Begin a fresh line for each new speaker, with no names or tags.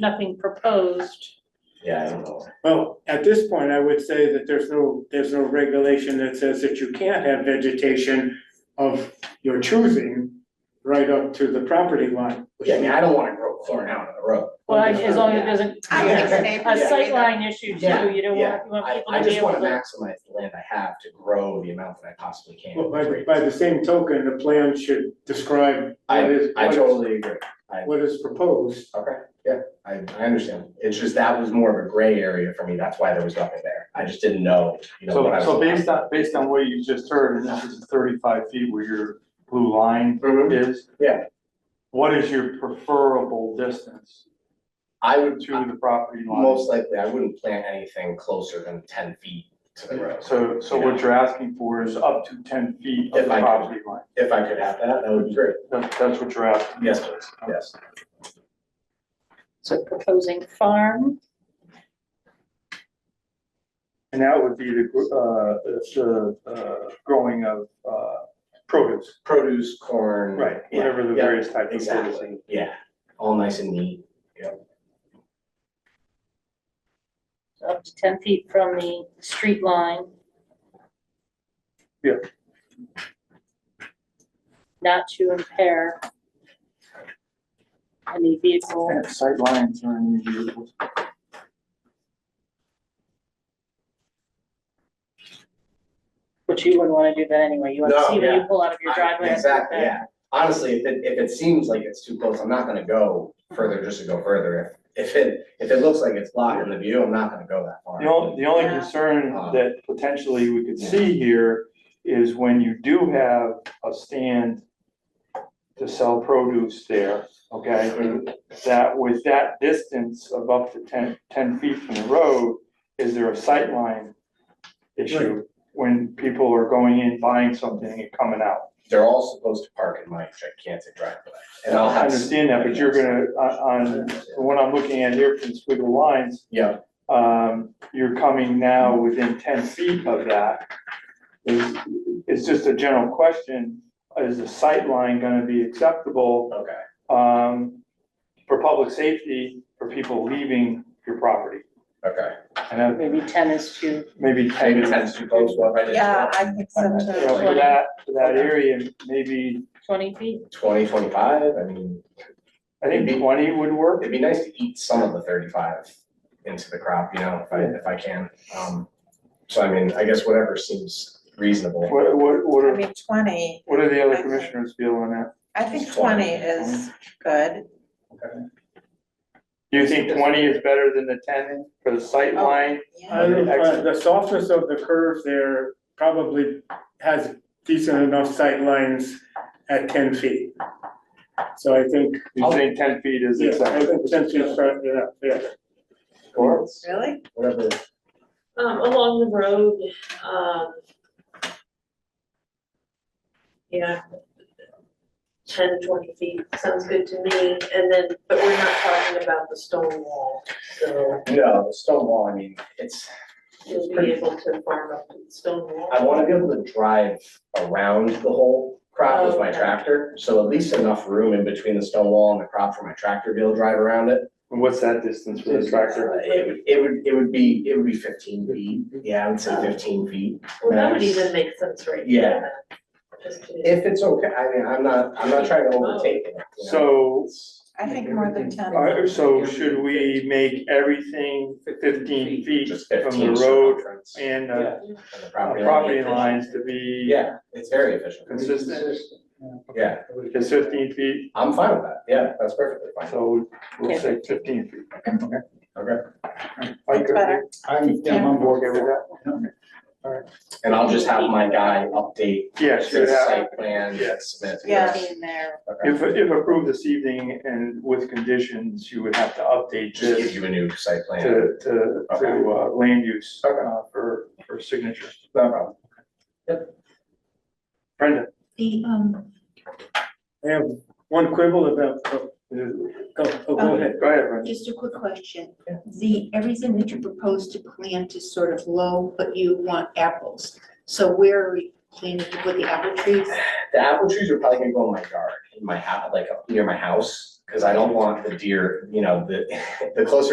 nothing proposed.
Yeah, I don't know.
Well, at this point, I would say that there's no, there's no regulation that says that you can't have vegetation of your choosing right up to the property line.
Yeah, I mean, I don't wanna grow corn out on the road.
Well, I- as long as it doesn't.
I don't think
A
it's
sight
safe.
line issue too, you don't want, you want
I,
people
I
to be
just
able
wanna
to.
maximize the land I have to grow the amount that I possibly can.
Well,
with
by,
trees.
by the same token, the plan should describe
I-
what is,
I
what is-
totally agree.
what is proposed.
Okay, yeah, I, I understand. It's just that was more of a gray area for me. That's why there was nothing there. I just didn't know, you know, what I was.
So, so based on, based on what you just heard, and this is thirty-five feet where your blue line
Mhm.
is.
Yeah.
What is your preferable distance
I
to
would,
the property line?
most likely, I wouldn't plant anything closer than ten feet to the road.
So, so what you're asking for is up to ten feet of
If
the
I could.
property line.
If I could have that, that would be great.
That's, that's what you're asking.
Yes, please, yes.
So proposing farm,
And that would be the, gr- uh, the, uh, growing of, uh, produce.
Produce, corn. yeah,
Whatever the
yeah,
various types of produce.
Exactly, yeah. All nice and neat.
up to ten feet from the street line.
Yeah.
Not to impair any vehicle.
And sight lines are unusual.
But you wouldn't wanna do that anyway, you wanna
No,
see when you
yeah.
pull out of your
I-
driveway. and stuff
Exactly,
that-
yeah. Honestly, if it, if it seems like it's too close, I'm not gonna go further just to go further. If, if it, if it looks like it's blocking the view, I'm not gonna go that far.
The only, the only
Yeah.
concern that potentially we could see here is when you do have a stand to sell produce there, okay? That with that distance of up to 10 10 feet from the road, is there a sight line issue? When people are going in, buying something and coming out?
They're all supposed to park in my gigantic driveway. And I'll
I
have.
understand that, but you're gonna, on, on what I'm looking at here from squiggle lines,
Yeah,
um, you're coming now within ten feet of that. It's, it's just a general question, is the sight line gonna be acceptable,
okay,
um, for public safety, for people leaving your property?
okay.
And that
Maybe ten is too,
maybe ten
Maybe
is,
ten's too close, what if I did
Yeah, I think
you
so
know,
too.
for that, for that area, maybe,
twenty feet,
twenty, twenty-five? I mean,
I think twenty would work.
it'd be nice to eat some of the thirty-five into the crop, you know, if I, if I can. Um, so I mean, I guess whatever seems reasonable.
What, what, what
I
are,
mean, twenty,
what do the other commissioners feel on that?
I think twenty is good.
Do you think twenty is better than the ten for the sight
Oh,
line?
Yeah,
I don't know, uh, the softness of the curve there probably has decent enough sight lines at ten feet. So I think,
You think ten feet is
yeah, I
acceptable?
think ten feet, is fair, yeah, yeah.
Or-
really?
Whatever,
Um, along the road, um. Yeah. Ten, twenty feet, sounds good to me, and then, but we're not talking about the stone wall, so
no, the stone wall, I mean, it's,
you'll be able to farm up to the stone wall.
I wanna be able to drive around the whole crop with my
Okay.
tractor, so at least enough room in between the stone wall and the crop for my tractor to be able to drive around it.
And What's that distance for the tractor?
Uh, It would, it would, it would be, it would be fifteen feet, yeah, I would say fifteen feet.
Well, that would
max.
even make sense right
Yeah.
there. Just to-
If it's okay, I mean, I'm not, I'm not trying to overtake it, you know?
So,
I think more than ten.
uh, so should we make everything fifteen feet
Just
from the
fifteen
road
circumference and
and uh,
Yeah. the property line.
property lines to be
Yeah, it's very efficient,
consistent?
yeah,
Is fifteen feet,
I'm fine with that, yeah, that's perfectly fine,
so we'll say fifteen feet. uh,
okay.
Mike,
That's better.
I'm,
yeah, I'm
you okay with that?
And I'll just have my guy update
Yeah,
this
sure, that-
site plan,
Yeah.
submit. to
Yeah.
us.
in there,
Okay.
if, if approved this evening and with conditions, you would have to update
Just give
this
you a new site
to,
plan.
to, to uh, land use
Okay.
uh, for, for signature.
No problem.
Brenda,
The, um,
I have one quibble about, oh,
go
go, oh, go ahead.
ahead, Brenda.
just a quick question.
Yeah.
The, everything that you propose to plant is sort of low, but you want apples. So where are we planting to put the apple trees?
The apple trees are probably gonna go in my yard, in my house, like up near my house, Cause I don't want the deer, you know, the, the closer